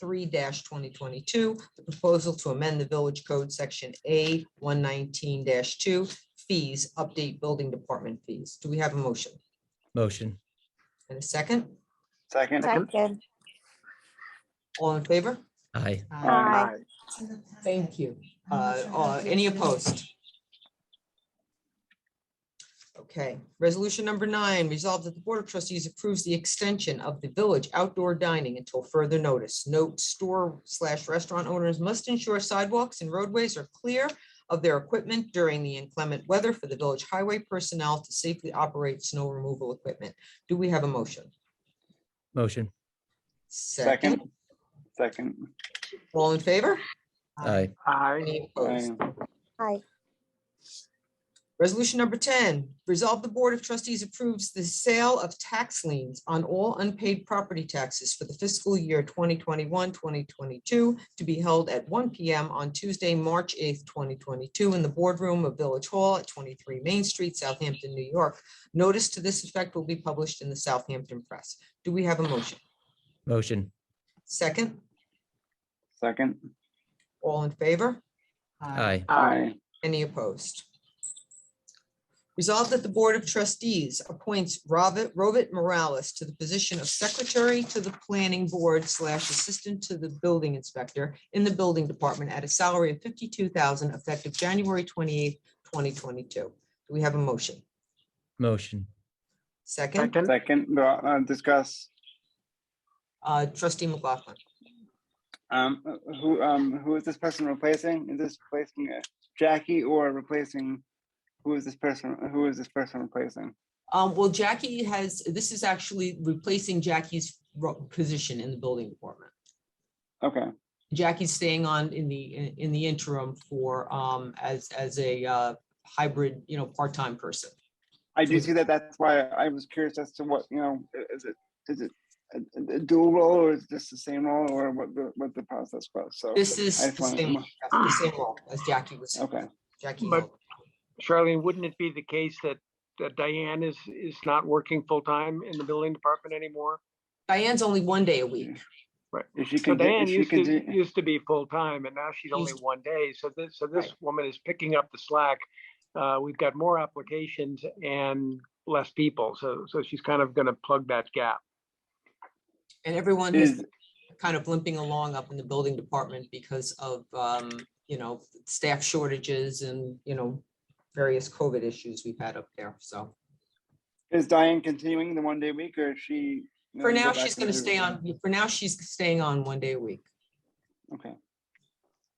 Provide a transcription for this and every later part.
three twenty twenty-two, the proposal to amend the village code section A one nineteen two, fees, update building department fees. Do we have a motion? motion, And a second? Second. Second. All in favor? aye, Aye. Thank you. Uh, uh, Any opposed? Okay, resolution number nine, resolved that the Board of Trustees approves the extension of the village outdoor dining until further notice. Note, store slash restaurant owners must ensure sidewalks and roadways are clear of their equipment during the inclement weather for the village highway personnel to safely operate snow removal equipment. Do we have a motion? motion, Second. Second. All in favor? aye, Aye. Any opposed? Aye. Resolution number ten, resolve the Board of Trustees approves the sale of tax liens on all unpaid property taxes for the fiscal year 2021-2022 to be held at one P M on Tuesday, March eighth, twenty twenty-two in the boardroom of Village Hall at twenty-three Main Street, Southampton, New York. Notice to this effect will be published in the Southampton Press. Do we have a motion? motion, Second, Second. all in favor? aye, Aye. Any opposed? Resolved that the Board of Trustees appoints Robert, Robert Morales to the position of Secretary to the Planning Board slash Assistant to the Building Inspector in the Building Department at a salary of fifty-two thousand effective January twenty-eighth, twenty twenty-two. Do we have a motion? motion, Second, Second, go, uh, discuss, uh, trustee McLaughlin. um, who, um, who is this person replacing? Is this replacing uh, Jackie or replacing? Who is this person, who is this person replacing? Um, well, Jackie has, this is actually replacing Jackie's ro- position in the Building Department. Okay, Jackie's staying on in the, in- in the interim for, um, as, as a, uh, hybrid, you know, part-time person. I do see that, that's why I was curious as to what, you know, i- is it, is it a- a- a dual role or is this the same role or what the, what the process was, so. This is I just the wanted to same, know. the same role as Jackie was. Okay, Jackie. But- Hill. Charlene, wouldn't it be the case that that Diane is, is not working full-time in the building department anymore? Diane's only one day a week. if she So can, do- Diane if she used can, to, do- used to be full-time and now she's only Used- one day. So this, so this Right. woman is picking up the slack. Uh, we've got more applications and less people. So, so she's kind of going to plug that gap. And everyone is is, kind of limping along up in the building department because of, um, you know, staff shortages and, you know, various COVID issues we've had up there. So is Diane continuing the one day week or is she? for gonna go now, back she's to going to the- stay on, for now, she's staying on one day a week. Okay.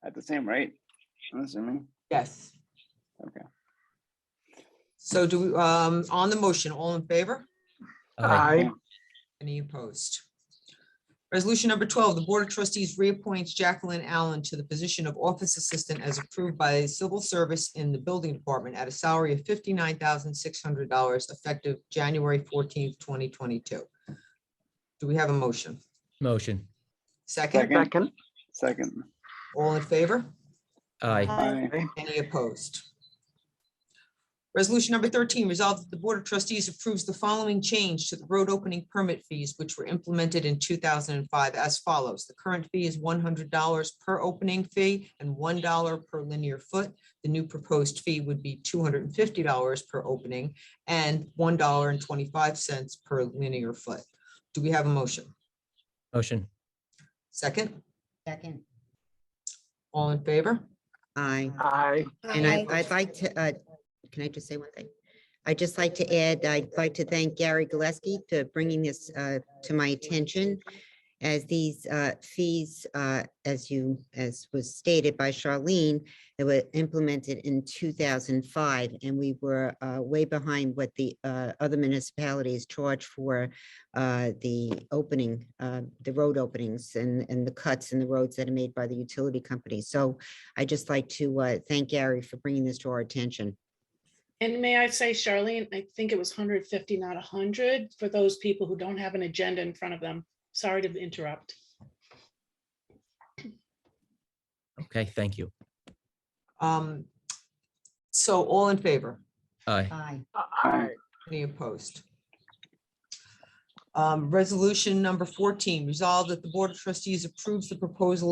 At the same rate, I'm assuming. Yes. Okay. So do, we um, on the motion, all in favor? aye, Any opposed? Resolution number twelve, the Board of Trustees reappoints Jacqueline Allen to the position of Office Assistant as approved by Civil Service in the Building Department at a salary of fifty-nine thousand six hundred dollars effective January fourteenth, twenty twenty-two. Do we have a motion? motion, Second, Second. Second, Second. all in favor? aye, Aye. Aye. Any opposed? Resolution number thirteen, resolved that the Board of Trustees approves the following change to the road opening permit fees, which were implemented in two thousand and five as follows. The current fee is one hundred dollars per opening fee and one dollar per linear foot. The new proposed fee would be two hundred and fifty dollars per opening and one dollar and twenty-five cents per linear foot. Do we have a motion? motion, Second, Second. all in favor? Aye. aye, And I, I'd like to, uh, can I just say one thing? I'd just like to add, I'd like to thank Gary Gillespie for bringing this, uh, to my attention. As these, uh, fees, uh, as you, as was stated by Charlene, they were implemented in two thousand and five. And we were, uh, way behind what the, uh, other municipalities charge for, uh, the opening, uh, the road openings and, and the cuts in the roads that are made by the utility company. So I'd just like to uh, thank Gary for bringing this to our attention. And may I say, Charlene, I think it was 150, not 100, for those people who don't have an agenda in front of them. Sorry to interrupt. okay, thank you, Um, So all in favor? aye, Aye. aye, Any opposed? Um, Resolution number 14, resolved that the Board of Trustees approves the proposal of